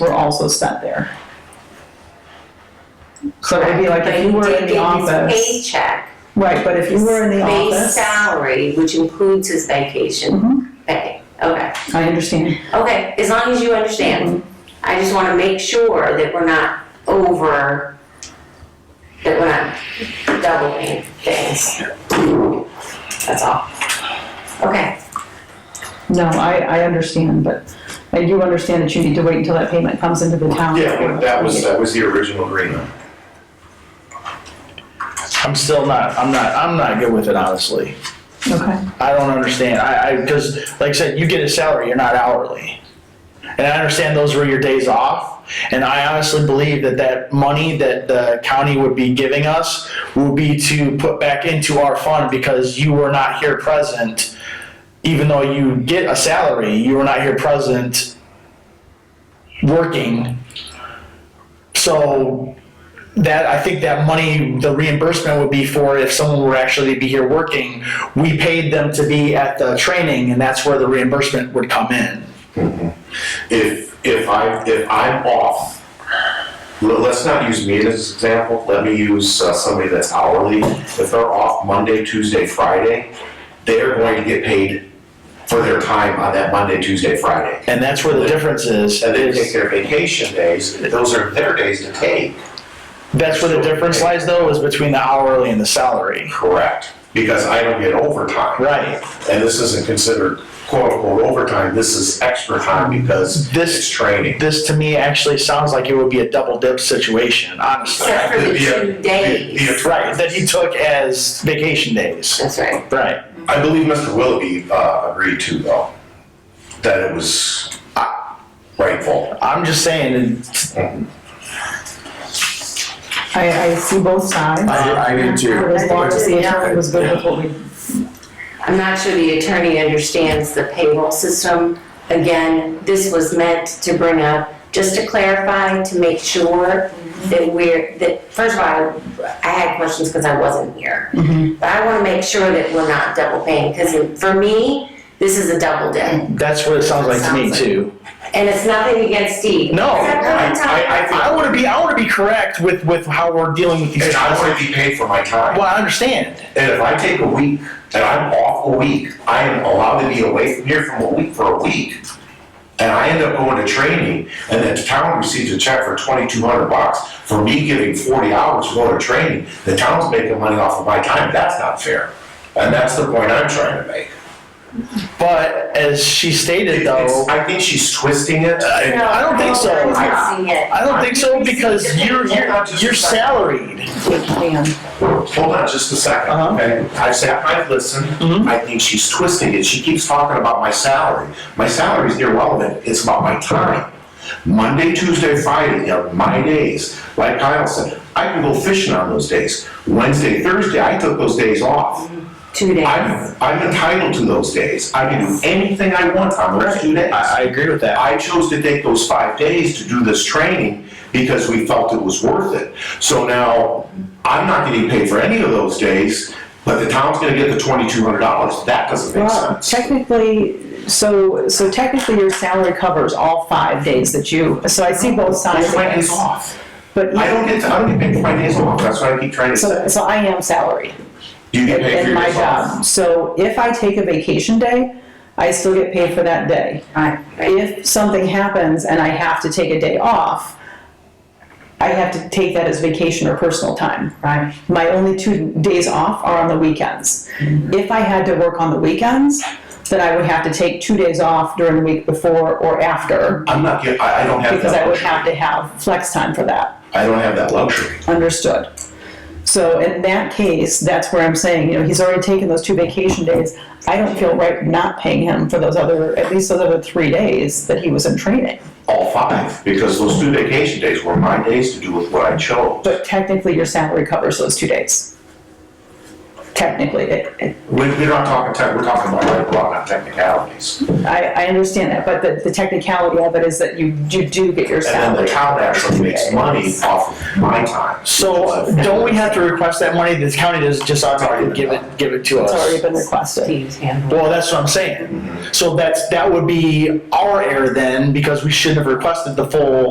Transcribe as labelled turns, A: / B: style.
A: were also spent there. So it'd be like if you
B: But
A: were in
B: did
A: the
B: get his
A: office,
B: Paycheck.
A: right, but if you were in the
B: his Base
A: office, Mm-hmm.
B: salary, which includes his vacation pay. Okay,
A: I understand.
B: okay, as long as you understand. I just wanna make sure that we're not over, that we're not doubling things. That's all. Okay,
A: No, I, I understand, but I do understand that you need to wait until that payment comes into the town.
C: Yeah, when that was, uh, that was the original agreement.
D: I'm still not, I'm not, I'm not good with it, honestly.
A: Okay,
D: I don't understand. I, I, because like I said, you get a salary, you're not hourly. And I understand those were your days off. And I honestly believe that that money that the county would be giving us would be to put back into our fund because you were not here present. Even though you get a salary, you were not here present working. So that I think that money, the reimbursement would be for if someone were actually to be here working, we paid them to be at the training, and that's where the reimbursement would come in.
C: If, if I, if I'm off, l- let's not use me as an example, let me use uh, somebody that's hourly. If they're off Monday, Tuesday, Friday, they're going to get paid for their time on that Monday, Tuesday, Friday.
D: And that's where the difference is,
C: And they take
D: is,
C: their vacation days, those are their days to take.
D: that's where the difference lies though, is between the hourly and the salary.
C: Correct. Because I don't get overtime.
D: Right.
C: And this isn't considered quote unquote overtime, this is extra time because
D: This-
C: it's training.
D: This to me actually sounds like it would be a double dip situation, honestly.
B: except for the
C: Be a-
B: two days.
D: Right, that he took as vacation days.
B: That's right.
D: Right.
C: I believe Mr. Willoughby uh, agreed to though, that it was uh, rightful.
D: I'm just saying, it's-
A: I, I see both sides.
E: I, I do too.
A: As long as the attorney was good with what we,
B: I'm not sure the attorney understands the payroll system. Again, this was meant to bring up, just to clarify, to make sure that we're, that, first of all, I had questions because I wasn't here.
D: Mm-hmm.
B: But I want to make sure that we're not double paying, because for me, this is a double dip.
D: that's what it sounds like to me
B: Sounds like-
D: too.
B: And it's nothing against Steve.
D: No,
B: Except for
C: I-
B: the time.
C: I-
D: I wanna be, I wanna be correct with, with how we're dealing with these
C: And I
D: topics.
C: want to be paid for my time.
D: Well, I understand.
C: And if I take a week and I'm off a week, I am allowed to be away from here from a week for a week. And I end up going to training and then the town receives a check for twenty-two hundred bucks for me giving forty hours to go to training. The town's making money off of my time. That's not fair. And that's the point I'm trying to make.
D: But as she stated,
C: It's-
D: though,
C: I think she's twisting it. and-
B: No,
D: I don't think so.
B: No, I'm not seeing it.
D: I don't think so because you're you're, you're salaried.
A: we can.
C: Hold on just a second,
D: Uh-huh.
C: okay? I've sat, I've listened,
D: Mhm.
C: I think she's twisting it, she keeps talking about my salary. My salary's irrelevant, it's about my time. Monday, Tuesday, Friday are my days, like Kyle said, I can go fishing on those days. Wednesday, Thursday, I took those days off.
B: Two days.
C: I'm, I'm entitled to those days, I can do anything I want on those two days.
D: agree with that.
C: I chose to take those five days to do this training because we felt it was worth it. So now, I'm not getting paid for any of those days, but the town's gonna get the twenty-two hundred dollars. That doesn't make
A: Well,
C: sense.
A: technically, so, so technically your salary covers all five days that you, so I see both sides.
C: It's
A: of
C: my
A: this.
C: days off.
A: But
C: I don't get, to- I don't get paid for my days off. That's what I keep trying to
A: So,
C: say.
A: so I am salary
C: Do you get paid for
A: in
C: your
A: my
C: days off?
A: job. So if I take a vacation day, I still get paid for that day.
B: Right.
A: If something happens and I have to take a day off, I have to take that as vacation or personal time.
B: Right.
A: My only two days off are on the weekends.
B: Mm-hmm.
A: If I had to work on the weekends, then I would have to take two days off during the week before or after
C: I'm not get, I, I don't have
A: because I
C: that
A: would
C: luxury.
A: have to have flex time for that.
C: I don't have that luxury.
A: Understood. So in that case, that's where I'm saying, you know, he's already taken those two vacation days. I don't feel right not paying him for those other, at least those other three days that he was in training.
C: All five, because those two vacation days were my days to do with what I chose.
A: But technically, your salary covers those two days. Technically, it, it,
C: We're, we're not talking tech, we're talking about right law, not technicalities.
A: I, I understand that, but the, the technicality of it is that you, you do get your
C: And
A: salary.
C: then the town actually makes money off of my time.
D: So don't we have to request that money? The county does just automatically give it give it to
A: It's already
D: us.
A: been requested.
B: Steve's handbook.
D: Well, that's what I'm saying. So that's that would be our error then because we shouldn't have requested the full